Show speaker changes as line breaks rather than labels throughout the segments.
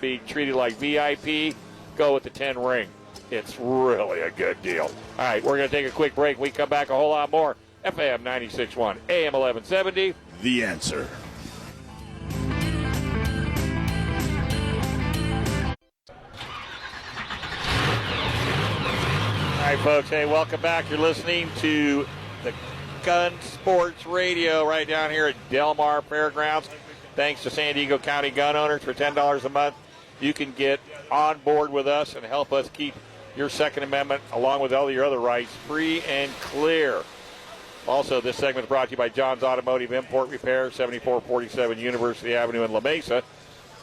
being treated like VIP, go with the 10 ring. It's really a good deal. All right, we're going to take a quick break. We come back a whole lot more. FM 96.1, AM 1170.
The answer.
All right, folks. Hey, welcome back. You're listening to the Gun Sports Radio right down here at Delmar Fairgrounds. Thanks to San Diego County gun owners for $10 a month. You can get on board with us and help us keep your Second Amendment, along with all your other rights, free and clear. Also, this segment is brought to you by John's Automotive Import Repair, 7447 University Avenue in La Mesa.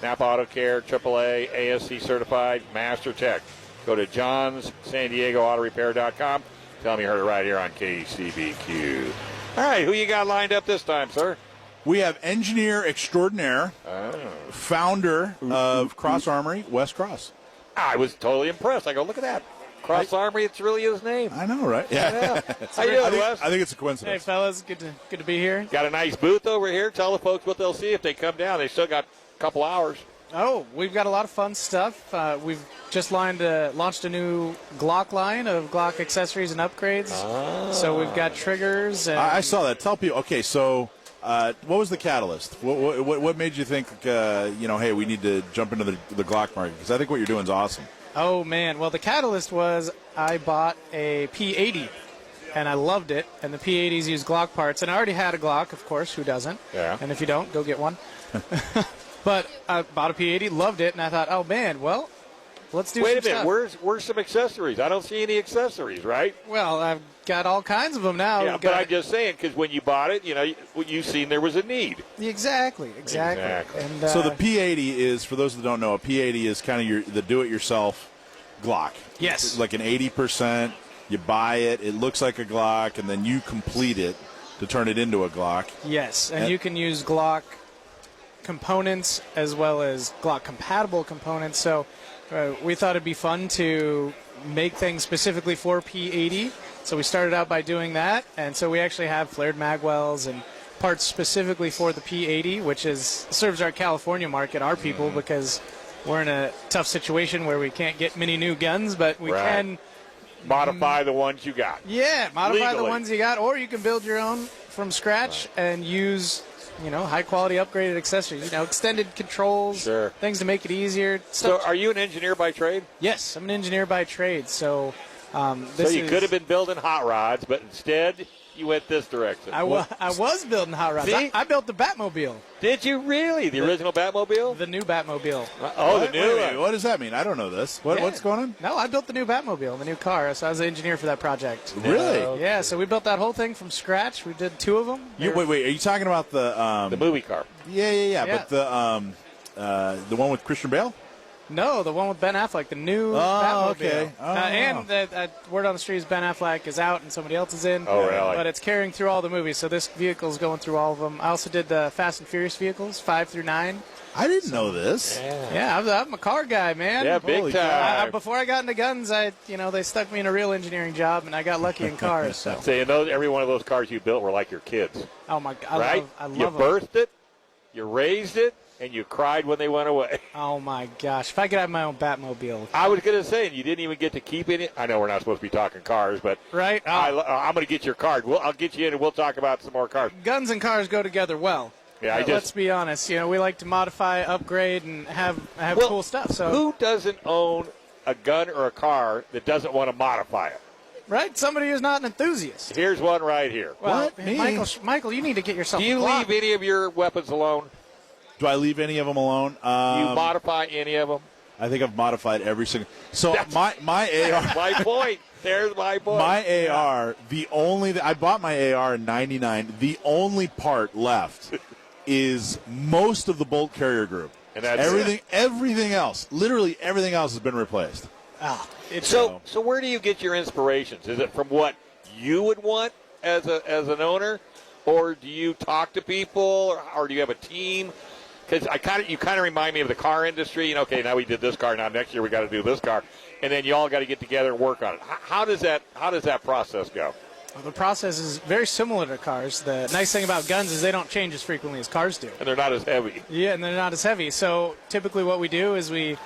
Napa Auto Care, AAA, ASC certified, Master Tech. Go to John's San Diego Auto Repair.com. Tell me you heard it right here on KCBQ. All right, who you got lined up this time, sir?
We have engineer extraordinaire,
Oh.
founder of Cross Armory, Wes Cross.
I was totally impressed. I go, look at that. Cross Armory, it's really his name.
I know, right? Yeah.
How you
I,
doing,
think,
Wes?
I think it's a
Hey
coincidence.
fellas, good to good to be here.
Got a nice booth over here. Tell the folks what they'll see if they come down. They still got a couple hours.
Oh, we've got a lot of fun stuff. Uh, we've just lined a, launched a new Glock line of Glock accessories and upgrades.
Ah.
So we've got triggers and
I, I saw that. Tell people. Okay, so uh, what was the catalyst? What, what, what made you think, uh, you know, hey, we need to jump into the, the Glock market? Because I think what you're doing is awesome.
oh man, well the catalyst was I bought a P80 and I loved it. And the P80s use Glock parts, and I already had a Glock, of course. Who doesn't?
Yeah.
And if you don't, go get one. but I bought a P80, loved it, and I thought, oh man, well, let's do.
Wait
some
a minute.
stuff.
Where's where's some accessories? I don't see any accessories, right?
Well, I've got all kinds of them now.
yeah,
We've
but
got-
I'm just saying because when you bought it, you know, you, you seen there was a need.
Exactly, exactly.
Exactly.
And, uh,
so the P80 is, for those that don't know, a P80 is kind of your the do-it-yourself Glock.
Yes.
It's like an 80%. You buy it. It looks like a Glock, and then you complete it to turn it into a Glock.
yes, and
Uh,
you can use Glock components as well as Glock compatible components. So uh, we thought it'd be fun to make things specifically for P80. So we started out by doing that, and so we actually have flared magwells and parts specifically for the P80, which is serves our California market, our people,
Mm-hmm.
because we're in a tough situation where we can't get many new guns, but we
Right.
can.
Modify the ones you got.
Mm. Yeah, modify the
Legally.
ones you got, or you can build your own from scratch and use, you know, high quality upgraded accessories. You know, extended controls,
Sure.
things to make it easier.
So,
Stuff.
are you an engineer by trade?
yes, I'm an engineer by trade, so um,
So
this
you
is-
could have been building hot rods, but instead you went this direction.
I, wa- I was building hot rods. I,
See?
I built the Batmobile,
Did you really? The original Batmobile?
the new Batmobile.
oh, the
Wait, wait
new
a minute,
one.
What does that mean? I don't know this. What,
Yeah.
What's going on?
No, I built the new Batmobile, the new car. So I was the engineer for that project.
Really?
Yeah, so we built that whole thing from scratch. We did two of them.
You, wait, wait. Are you talking about the? Um,
The movie car.
yeah, yeah, yeah,
Yeah.
But the um, uh, the one with Christian Bale.
No, the one with Ben Affleck, the new
Oh,
Batmobile.
okay. Oh.
Uh, and the uh, word on the street is Ben Affleck is out and somebody else is in.
Oh, really?
But it's carrying through all the movies, so this vehicle is going through all of them. I also did the Fast and Furious vehicles, five through nine.
I didn't know this.
Yeah, I'm, I'm a car guy, man.
Yeah, big
Holy
time.
I, I- before I got into guns, I you know they stuck me in a real engineering job, and I got lucky in cars. So,
See, and those, every one of those cars you built were like your kids,
oh my, I
right?
love, I
you
love 'em.
birthed it, you raised it, and you cried when they went away.
Oh my gosh, if I could have my own Batmobile,
I was going to say, and you didn't even get to keep any. I know we're not supposed to be talking cars, but
right? uh,
I, am going to get your card. We'll, I'll get you in, and we'll talk about some more cars.
guns and cars go together well.
Yeah, I
But
just-
let's be honest. You know, we like to modify, upgrade, and have have
Well,
cool stuff. So
Who doesn't own a gun or a car that doesn't want to modify it?
right, somebody who's not an enthusiast.
Here's one right here.
Well,
What? Me?
Michael, Michael, you need to get yourself.
Do you
a Glock.
leave any of your weapons alone?
Do I leave any of them alone?
Do you
Um,
modify any of them?
I think I've modified every single. So my my AR.
My point. There's my point.
My AR, the only I bought my AR in '99. The only part left is most of the bolt carrier group.
And that's it.
everything, everything else, literally everything else has been replaced.
Ah, it's
so, so where do you get your inspirations? Is it from what you would want as a as an owner, or do you talk to people, or, or do you have a team? Because I kind of you kind of remind me of the car industry. You know, okay, now we did this car. Now next year we got to do this car, and then you all got to get together and work on it. How, how does that How does that process go?
Well, the process is very similar to cars. The nice thing about guns is they don't change as frequently as cars do.
and they're not as heavy.
Yeah, and they're not as heavy. So typically, what we do is we